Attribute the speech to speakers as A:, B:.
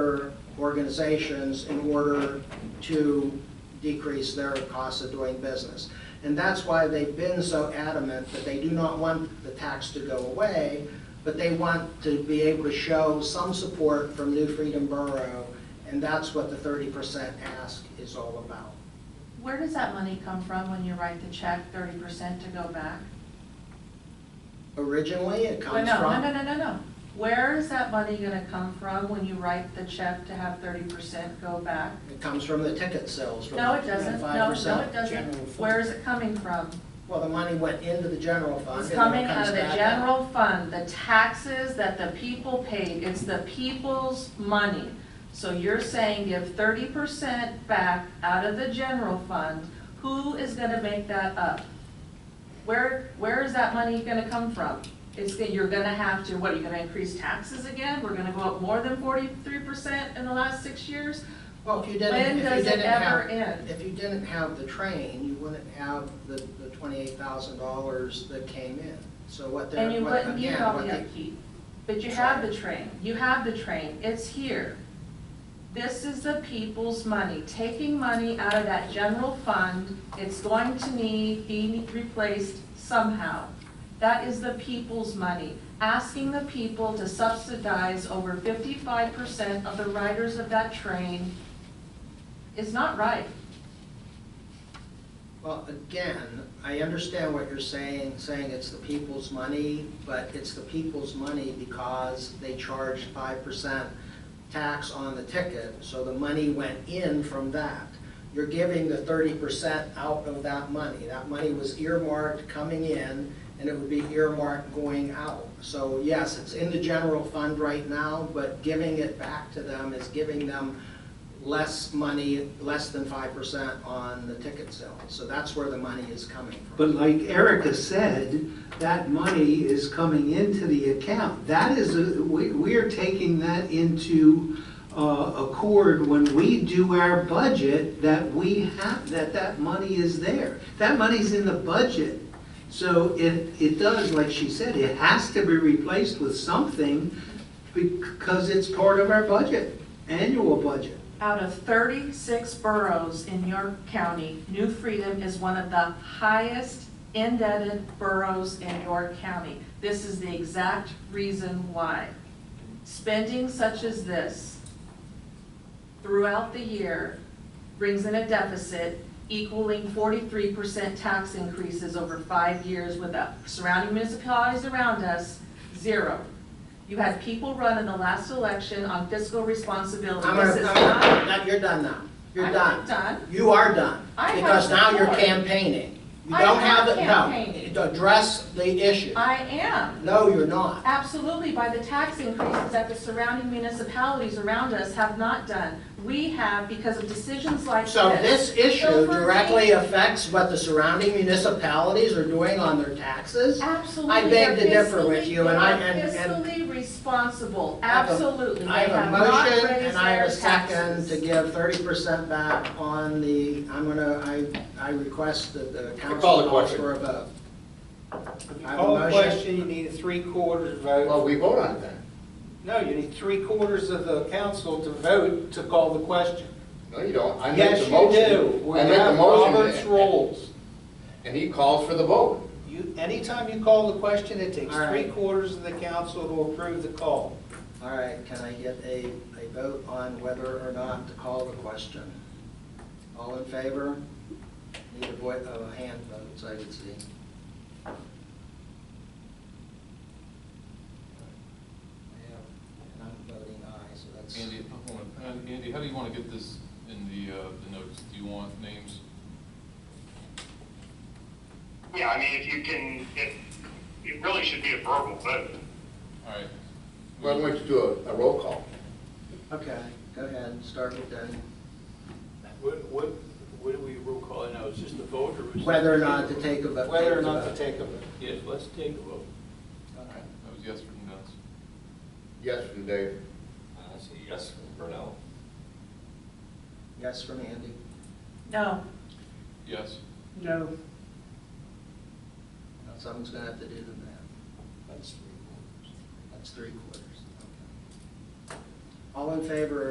A: other organizations in order to decrease their cost of doing business. And that's why they've been so adamant that they do not want the tax to go away, but they want to be able to show some support from New Freedom Borough, and that's what the thirty percent ask is all about.
B: Where does that money come from when you write the check, thirty percent to go back?
A: Originally, it
B: Well,
A: comes
B: no,
A: from.
B: no, no, no, no, no. Where is that money gonna come from when you write the check to have thirty percent go back?
A: It comes from the ticket sales from
B: No, it doesn't. No, no, it
A: 5%.
B: doesn't.
C: General fund.
B: Where is it coming from?
A: Well, the money went into the general fund.
B: It's
A: and then it
B: coming out
A: comes
B: of the
A: back out.
B: general fund, the taxes that the people paid, it's the people's money. So you're saying give thirty percent back out of the general fund, who is gonna make that up? Where, where is that money gonna come from? It's, that you're gonna have to, what, are you gonna increase taxes again? We're gonna go up more than forty-three percent in the last six years?
A: Well, if you didn't,
B: When
A: if you
B: does it
A: didn't
B: ever
A: have,
B: end?
A: if you didn't have the train, you wouldn't have the, the twenty-eight thousand dollars that came in. So what they're,
B: And you
A: what,
B: wouldn't need
A: again,
B: all
A: what
B: the
A: they,
B: upkeep, but you have the train, you have the train, it's here. This is the people's money, taking money out of that general fund, it's going to need, be replaced somehow. That is the people's money, asking the people to subsidize over fifty-five percent of the riders of that train is not right.
A: well, again, I understand what you're saying, saying it's the people's money, but it's the people's money because they charged five percent tax on the ticket, so the money went in from that. You're giving the thirty percent out of that money. That money was earmarked coming in, and it would be earmarked going out. So yes, it's in the general fund right now, but giving it back to them is giving them less money, less than five percent on the ticket sale. So that's where the money is coming from.
C: But like Erica said, that money is coming into the account. That is, a- we, we are taking that into uh, accord when we do our budget, that we have, that that money is there. That money's in the budget. So it, it does, like she said, it has to be replaced with something because it's part of our budget, annual budget.
B: Out of 36 boroughs in York County, New Freedom is one of the highest indebted boroughs in York County. This is the exact reason why. Spending such as this throughout the year brings in a deficit equaling 43% tax increases over five years with the surrounding municipalities around us, zero. You had people run in the last election on fiscal responsibility.
A: I'm
B: This
A: gonna,
B: is not
A: I'm- now, you're done now. You're
B: I'm
A: done.
B: not done.
A: You are done,
B: I have
A: because now you're
B: support.
A: campaigning. You
B: I
A: don't
B: am
A: have it,
B: campaigning.
A: no, address the issue.
B: I am,
A: No, you're not.
B: absolutely, by the tax increases that the surrounding municipalities around us have not done. We have, because of decisions like this.
A: So this issue
B: Over
A: directly
B: me.
A: affects what the surrounding municipalities are doing on their taxes?
B: Absolutely.
A: I beg to
B: they're
A: differ with
B: fiscally-
A: you, and I-
B: they're
A: and- and-
B: Fiscally responsible,
A: I have a-
B: absolutely.
A: I
B: They
A: have a
B: not
A: motion
B: raised
A: and I have a
B: their
A: second
B: taxes.
A: to give thirty percent back on the, I'm gonna, I, I request that the council
D: call the
A: calls
D: question.
A: for a vote.
E: If you
A: I have a
E: call a
A: motion.
E: question, you need a three-quarters
D: Well,
E: vote.
D: we vote on it then.
E: No, you need three-quarters of the council to vote to call the question.
D: No, you don't. I make
E: Yes,
D: the
E: you
D: motion.
E: do. We
D: I make the
E: have
D: motion.
E: Robert's rules.
D: And he calls for the vote.
E: You, anytime you call the question, it takes
A: All right.
E: three-quarters of the council to approve the call.
A: All right, can I get a, a vote on whether or not to call the question? All in favor? Need a voice, a hand vote, so I can see. And I'm voting aye, so that's.
F: Andy, hold on. Uh, Andy, how do you want to get this in the, uh, the notes? Do you want names?
G: Yeah, I mean, if you can, it, it really should be a verbal vote.
F: All right.
D: Well, we have to do a, a roll call.
A: Okay, go ahead, start with Denny.
H: What, what, what do we roll call it now? Is this the vote or is? it-
A: Whether or not to take a vote.
E: Whether or not to take a vote.
H: Yes, let's take a vote.
A: Okay.
F: That was yes from Dennis.
D: Yes from Dave.
H: I say yes for Brunel.
A: Yes from Andy.
B: No,
F: Yes.
C: No.
A: Now Someone's gonna have to do the math.
E: That's three-quarters.
A: That's three quarters. Okay. All in favor